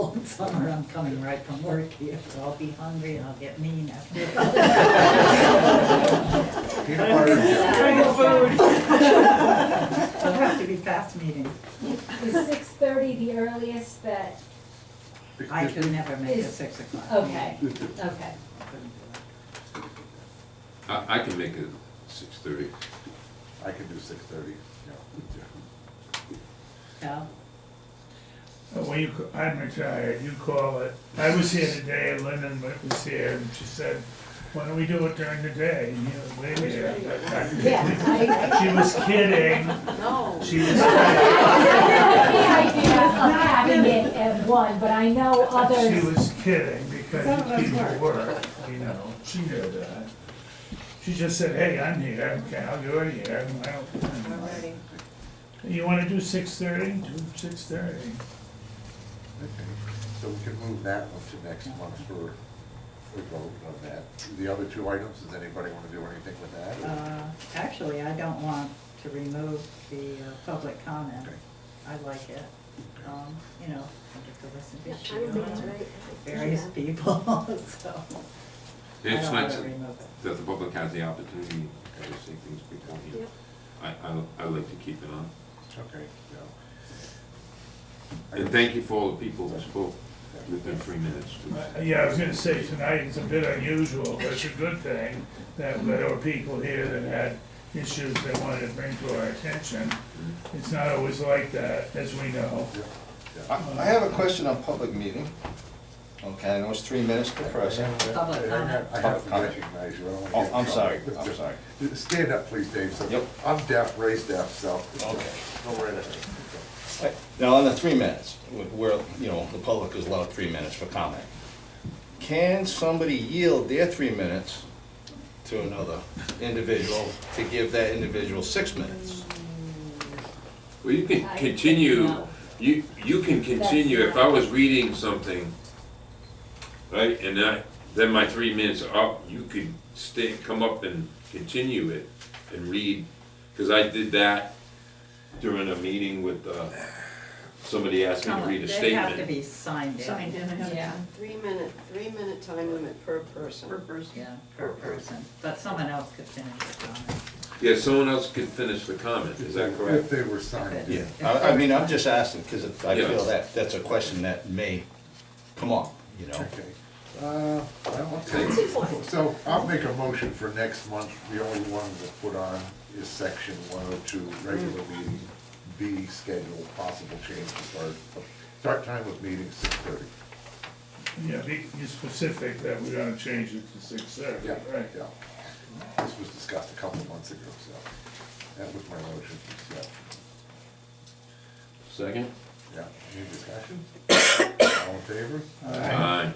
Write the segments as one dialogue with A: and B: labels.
A: cold summer, I'm coming right from work here, so I'll be hungry and I'll get mean after.
B: Peanut butter.
A: It'll have to be fast meetings.
C: Is six thirty the earliest that,
A: I could never make it six o'clock.
C: okay, okay.
D: I, I can make it six thirty.
B: I can do six thirty, yeah.
A: No?
E: Uh, Well, you, ca- I'm retired, you call it. I was here today, Lyndon was here, and she said, why don't we do it during the day? And you know, they were-
C: Yeah.
E: She was kidding,
F: No.
E: she was kidding,
C: The idea of having it at one, but I know
E: she
C: others,
E: was kidding because
A: Some of us
E: people
A: work.
E: work, you know, she knew that. She just said, hey, I'm here, okay, I'll do it here, and I don't. You wanna do six thirty? Do six thirty.
B: Okay, So we can move that one to next month for, for vote on that. The other two items, does anybody want to do anything with that? or-
A: Uh, Actually, I don't want to remove the uh, public comment.
B: Okay.
A: I like it. Um, You know, I get to listen
F: I
A: to
F: don't think it's
A: Sheila,
F: right.
A: various people, so I don't
D: It's not
A: want to
D: that
A: remove it.
D: the public has the opportunity to see things beforehand.
F: Yep.
D: I, I, I like to keep it on.
B: Okay, yeah.
D: And thank you for all the people who spoke within three minutes.
E: Uh, Yeah, I was gonna say, tonight is a bit unusual, but it's a good thing that there were people here that had issues they wanted to bring to our attention. It's not always like that, as we know.
G: I I have a question on public meeting. Okay, I know it's three minutes per person.
A: Public comment.
B: I have to recognize you. I don't wanna
G: Oh,
B: get in
G: I'm sorry,
B: trouble.
G: I'm sorry.
B: Stand up, please, Dave. so-
G: Yep.
B: I'm deaf, raised deaf, so.
G: Okay.
B: Don't worry about it.
G: Now, on the three minutes, wh- where, you know, the public is allowed three minutes for comment, can somebody yield their three minutes to another individual to give that individual six minutes?
D: Well, you can
C: I-
D: continue,
C: no.
D: you, you can continue, if I was reading something, right, and I, then my three minutes are up, you could stay, come up and continue it and read, cause I did that during a meeting with, uh, somebody asked me to read a
A: They Oh, have to
D: statement.
A: be signed in.
C: yeah.
F: Three minute, three minute time limit per person. Per person.
A: Yeah, per person, but someone else could finish the comment.
D: Yeah, someone else could finish the comment, is that correct?
B: If they were signed in.
G: I, I mean, I'm just asking, because I
D: Yeah.
G: feel that, that's a question that may come up, you know?
B: Okay. Uh, well, okay. So I'll make a motion for next month. The only one to put on is section one oh two, regular meeting, B schedule, possible change to start, start time of meeting six thirty.
E: Yeah, be be specific that we're gonna change it to six thirty,
B: Yeah,
E: right?
B: yeah. This was discussed a couple of months ago, so that was my motion, so,
D: Second?
B: yeah. Any discussion? All in favor?
D: Aye.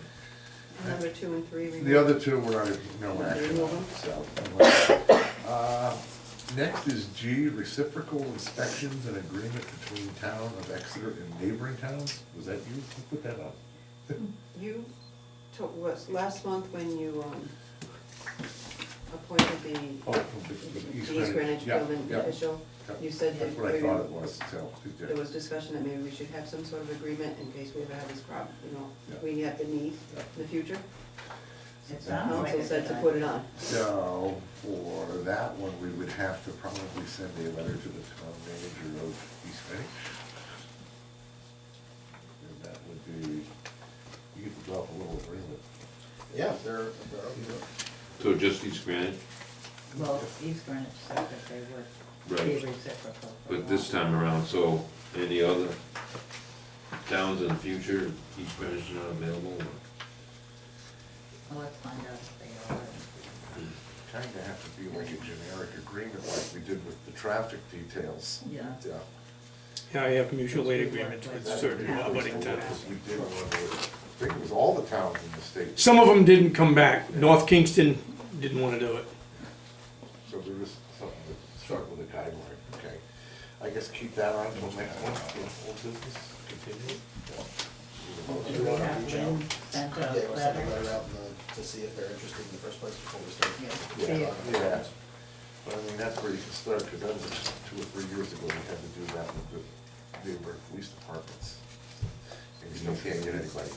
F: Number two and three.
B: The other two were, uh, no action on, so. uh, Next is G, reciprocal inspections and agreement between town of Exeter and neighboring towns. Was that you who put that up?
F: You took, was last month when you, um, appointed the
B: Oh, from the- the
F: the East Greenwich
B: Yeah,
F: Building
B: yeah,
F: official,
B: yeah.
F: you said that
B: That's what I
F: maybe-
B: thought it was, so. yeah.
F: there was discussion that maybe we should have some sort of agreement in case we ever have this problem, you know,
B: Yeah.
F: we have the need
B: Yeah.
F: in the future.
A: It sounds like
F: Council
A: a
F: said to
A: good
F: put it on.
B: So for that one, we would have to probably send a letter to the town manager of East Greenwich. And that would be, you could develop a little agreement.
G: Yeah, they're,
D: So just East Greenwich,
A: idea. Well, East Greenwich said that they would
D: Right.
A: be reciprocal. for
D: but this
A: that.
D: time around, so any other towns in the future, East Greenwich is not available?
A: Well, let's find out if they are.
B: Kind of have to be like a generic agreement like we did with the traffic details.
A: Yeah.
B: Yeah.
H: Yeah, I have mutual aid agreements with certain abutting towns.
B: We did one with, I think it was all the towns in the state.
H: Some of them didn't come back. North Kingston didn't want to do it.
B: So there is something that struck with a guideline, okay? I guess keep that on till next one, old business, continue.
A: Oh, Do we have Lynn sent
I: Yeah, we'll
A: a
I: send a
A: letter?
I: letter out uh, to see if they're interested in the first place before we start.
A: Yeah,
B: Yeah,
A: see if-
B: yeah, but I mean, that's where you can start, because that was just two or three years ago, we had to do that with the Newburgh Police Departments. and you still can't get anybody.